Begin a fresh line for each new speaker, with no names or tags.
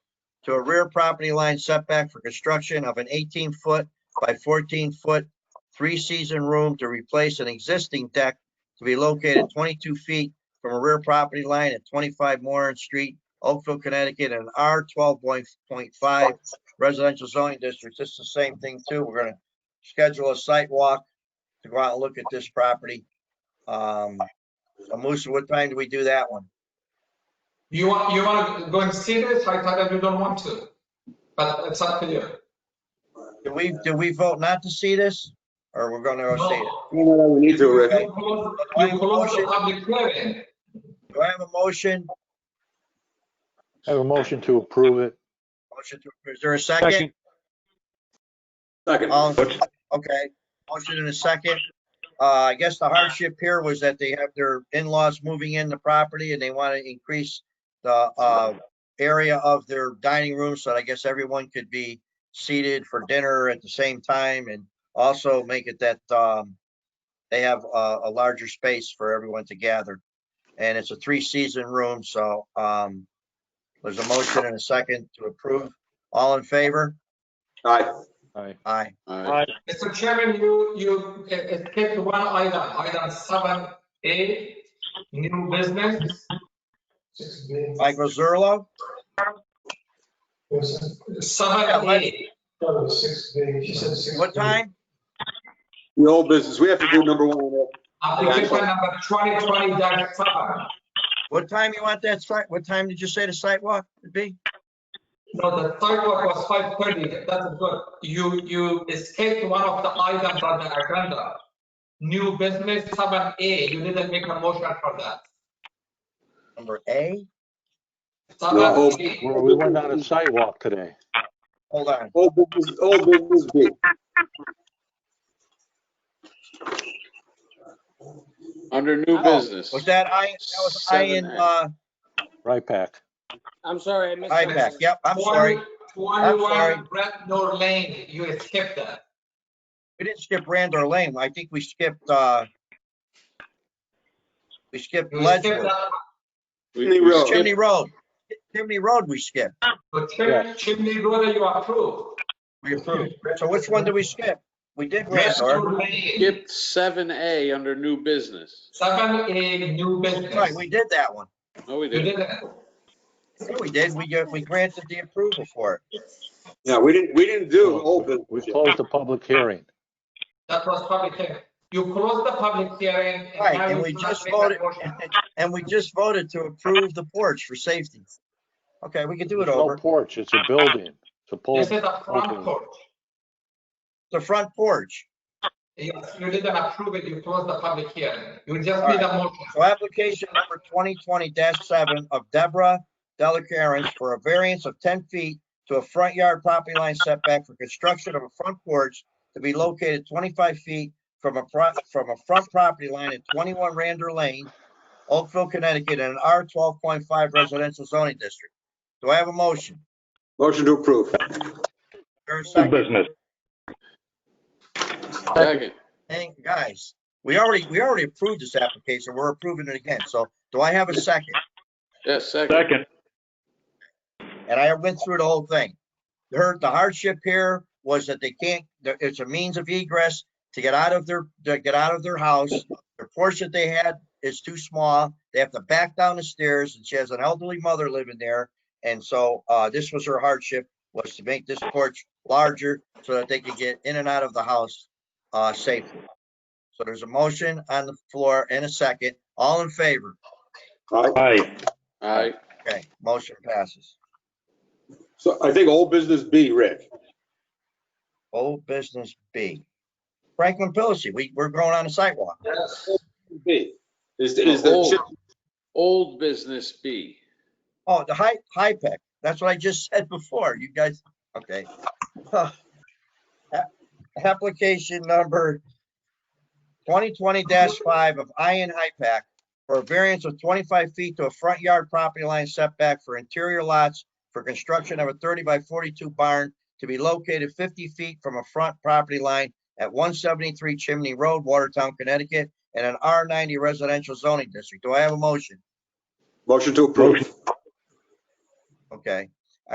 to a rear property line setback for construction of an 18-foot by 14-foot three-season room to replace an existing deck to be located 22 feet from a rear property line at 25 Moran Street, Oakville, Connecticut, in R 12.5 residential zoning district. This is the same thing too. We're gonna schedule a site walk to go out and look at this property. Um, so Musa, what time do we do that one?
You want, you want to go and see this? I thought that you don't want to, but it's up to you.
Do we, do we vote not to see this? Or we're gonna go see it?
No,
No, no, no, we need to,
You
Rick.
close you close the public hearing.
Do I have a motion?
I have a motion to approve it.
Motion to, is there a second?
Second.
Um,
What's-
Okay, motion in a second. Uh, I guess the hardship here was that they have their in-laws moving in the property and they want to increase the, uh, area of their dining room, so I guess everyone could be seated for dinner at the same time and also make it that, um, they have a, a larger space for everyone to gather. And it's a three-season room, so, um, there's a motion and a second to approve. All in favor?
Aye.
Aye.
Aye.
Aye.
Mr. Chairman, you, you escaped one item, item seven A, new business.
Michael Zurlo?
Seven A,
What time?
The old business, we have to do number one.
application number twenty twenty dash seven.
What time you want that site? What time did you say the sidewalk would be?
No, the third one was five thirty, that's good. You, you escaped one of the items on the agenda. New business seven A, you didn't make a motion for that.
Number A?
No.
Seven A,
Well, We went on a sidewalk today.
Hold on.
Old business, old business B.
Under
Oh.
new business.
Was that I, that was I in,
Seven A.
uh,
Right back.
I'm sorry, I missed.
I
that.
pack? Yep, I'm sorry. I'm sorry.
Twenty-one Brentnor Lane, you escaped that.
We didn't skip Randor Lane. I think we skipped, uh, we skipped
You escaped
Ledgewood.
that.
We-
Chimney
we
Road.
skipped-
Chimney Road. Chimney Road we skipped.
The chim-
Yes.
chimney road you approved.
We approved. So which one did we skip? We did Randor.
Brentnor Lane,
Skipped seven A under new business.
seven A, new
Right,
business.
we did that one.
No, Oh, we
You
didn't.
didn't,
Yeah, We did. We, got- we granted the approval for it.
Yeah, we didn't, we didn't do old business.
We
yet.
closed the public hearing.
that was public hearing. You closed the public hearing. and
Right,
now
and
you
we
cannot
just
make a
voted,
motion.
and we just voted to approve the porch for safety. Okay, we can do it
There's no
over.
porch, it's a building. It's a pole.
This is a front
open.
porch.
The front porch.
Yes, you didn't approve it, you closed the public hearing. You just
All
need a motion.
So application number twenty twenty seven of Deborah Delacarence for a variance of ten feet to a front yard property line setback for construction of a front porch to be located twenty-five feet from a front, from a front property line at twenty-one Rander Lane, Oakville, Connecticut, in an R twelve point five residential zoning district. Do I have a motion?
Motion to approve.
Or a second?
Second.
Hey, guys, we already, we already approved this application. We're approving it again. So do I have a second?
Yes, second.
And I went through the whole thing. The hurt- the hardship here was that they can't, that it's a means of egress to get out of their, to get out of their house. The porch that they had is too small. They have to back down the stairs and she has an elderly mother living there. And so, uh, this was her hardship, was to make this porch larger so that they could get in and out of the house, uh, safely. So there's a motion on the floor and a second. All in favor?
All right,
All right.
Okay, motion passes.
so I think old business B, Rick.
Old business B. Franklin Pillacy, we, we're growing on a sidewalk.
Yes.
B. Is, is the,
Old.
chim-
Old business B.
Oh, the high, high pack. That's what I just said before. You guys, okay. Huh. A- Application number twenty twenty five of Ian High Pack for a variance of twenty-five feet to a front yard property line setback for interior lots for construction of a thirty by forty-two barn to be located fifty feet from a front property line at one seventy-three Chimney Road, Watertown, Connecticut, in an R ninety residential zoning district. Do I have a motion?
motion to approve.
Okay,